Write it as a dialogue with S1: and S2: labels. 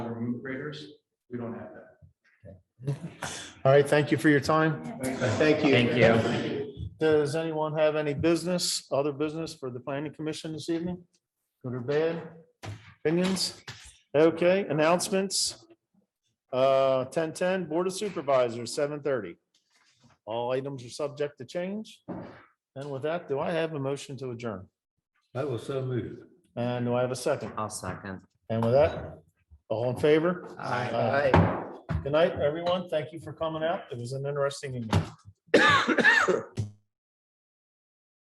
S1: years. We don't have that.
S2: All right, thank you for your time.
S3: Thank you.
S4: Thank you.
S2: Does anyone have any business, other business for the planning commission this evening? Good or bad? Opinions? Okay, announcements. Uh, ten ten, Board of Supervisors, seven thirty. All items are subject to change. And with that, do I have a motion to adjourn?
S3: I will so move.
S2: And do I have a second?
S4: I'll second.
S2: And with that, all in favor? Aye. Good night, everyone. Thank you for coming out. It was an interesting evening.